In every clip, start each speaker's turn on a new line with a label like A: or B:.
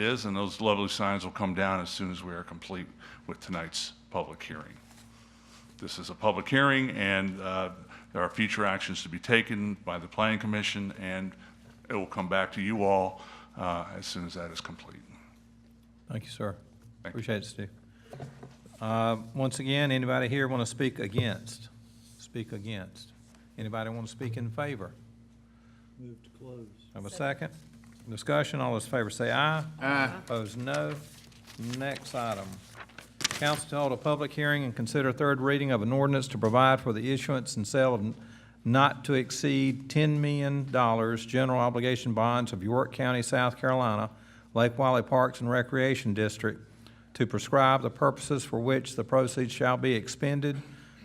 A: is, and those lovely signs will come down as soon as we are complete with tonight's public hearing. This is a public hearing, and uh, there are future actions to be taken by the planning commission, and it will come back to you all uh, as soon as that is complete.
B: Thank you, sir.
A: Thank you.
B: Appreciate it, Steve. Uh, Once again, anybody here want to speak against? Speak against. Anybody want to speak in favor?
C: Move to close.
B: Have a second? Discussion, all those in favor say aye.
D: Aye.
B: Opposed, no. Next item. Council to hold a public hearing and consider third reading of an ordinance to provide for the issuance and sale of not to exceed ten million dollars general obligation bonds of York County, South Carolina, Lake Wiley Parks and Recreation District, to prescribe the purposes for which the proceeds shall be expended,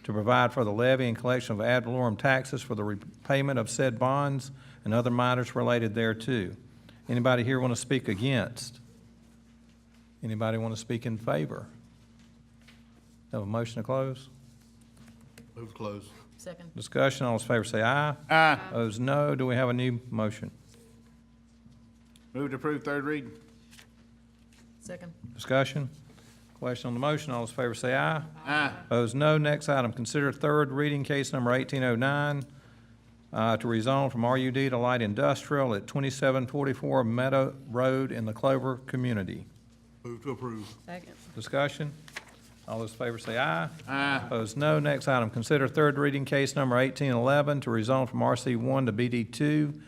B: to provide for the levy and collection of ad valorem taxes for the repayment of said bonds and other matters related thereto. Anybody here want to speak against? Anybody want to speak in favor? Have a motion to close?
D: Move to close.
E: Second.
B: Discussion, all those in favor say aye.
D: Aye.
B: Opposed, no. Do we have a new motion?
D: Move to approve third reading.
E: Second.
B: Discussion? Question on the motion, all those in favor say aye.
D: Aye.
B: Opposed, no. Next item, consider third reading case number 1809 uh, to rezone from RUD to light industrial at 2744 Meadow Road in the Clover community.
D: Move to approve.
E: Second.
B: Discussion? All those in favor say aye.
D: Aye.
B: Opposed, no. Next item, consider third reading case number 1811 to rezone from RC1 to BD2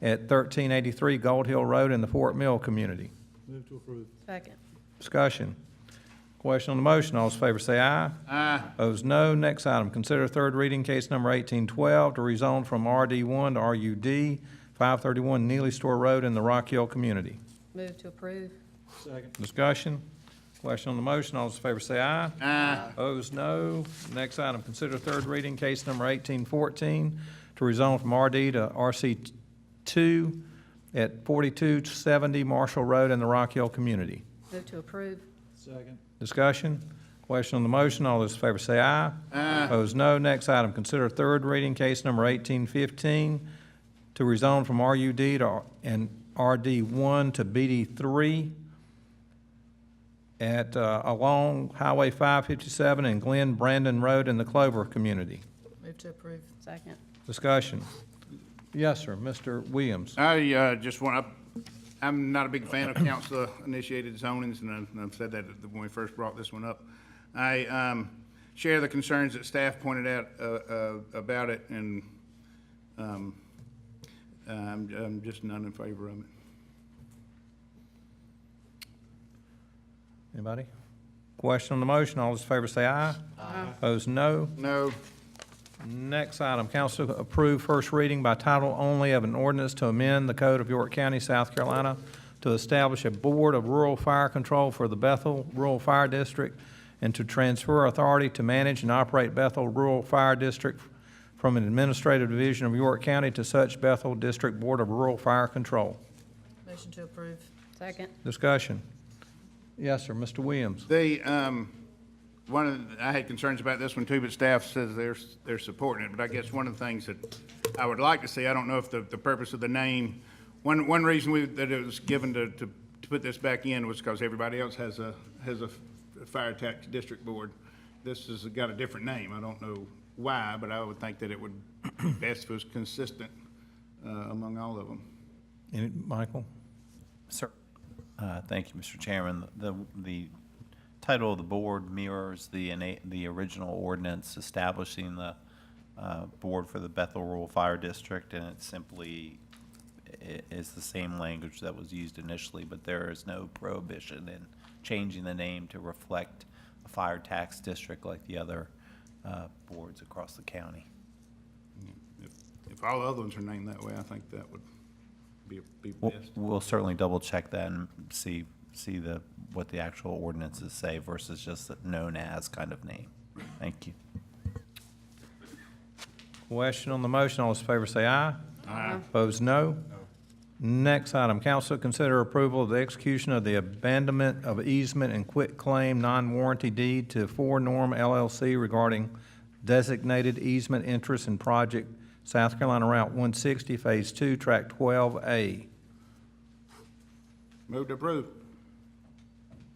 B: at 1383 Gold Hill Road in the Fort Mill community.
C: Move to approve.
E: Second.
B: Discussion. Question on the motion, all those in favor say aye.
D: Aye.
B: Opposed, no. Next item, consider third reading case number 1812 to rezone from RD1 to RUD, 531 Neely Store Road in the Rock Hill community.
E: Move to approve.
C: Second.
B: Discussion. Question on the motion, all those in favor say aye.
D: Aye.
B: Opposed, no. Next item, consider third reading, case number 1814, to rezone from RD to RC2 at 4270 Marshall Road in the Rock Hill community.
E: Move to approve.
C: Second.
B: Discussion? Question on the motion, all those in favor say aye. Aye. Opposed, no. Next item, consider third reading, case number 1815, to rezone from RUD to, R- and RD1 to BD3 at, uh, along Highway 557 and Glen Brandon Road in the Clover community.
E: Move to approve. Second.
B: Discussion? Yes, sir, Mr. Williams.
D: I uh, just want, to. I'm not a big fan of council-initiated zonings, and I've- and I've said that when we first brought this one up. I um, share the concerns that staff pointed out uh, uh, about it, and um, I'm I'm just none in favor of it.
B: Anybody? Question on the motion, all those in favor say aye. Aye. Opposed, no.
D: No.
B: Next item, council to approve first reading by title only of an ordinance to amend the code of York County, South Carolina, to establish a board of rural fire control for the Bethel Rural Fire District and to transfer authority to manage and operate Bethel Rural Fire District from an administrative division of York County to such Bethel District Board of Rural Fire Control.
E: Motion to approve. Second.
B: Discussion. Yes, sir, Mr. Williams.
D: They, um, one of, the- I had concerns about this one too, but staff says they're, they're supporting it, but I guess one of the things that I would like to see, I don't know if the, the purpose of the name, one, one reason we, that it was given to, to, to put this back in was because everybody else has a, has a fire tax district board. This has got a different name, I don't know why, but I would think that it would, best was consistent, uh, among all of them.
B: Any- Michael?
F: Sir. Uh, Thank you, Mr. Chairman. The, the title of the board mirrors the, ina- the original ordinance establishing the uh, board for the Bethel Rural Fire District, and it simply i- is the same language that was used initially, but there is no prohibition in changing the name to reflect a fire tax district like the other uh, boards across the county.
D: If if all the other ones are named that way, I think that would be, be
F: We'll-
D: best.
F: We'll certainly double check that and see, see the, what the actual ordinances say versus just the known as kind of name. Thank you.
B: Question on the motion, all those in favor say aye. Aye. Opposed, no. Next item, council consider approval of the execution of the abandonment of easement and quit claim non-warranty deed to Four Norm LLC regarding designated easement interest in project South Carolina Route 160, Phase 2, Track 12A.
D: Move to approve.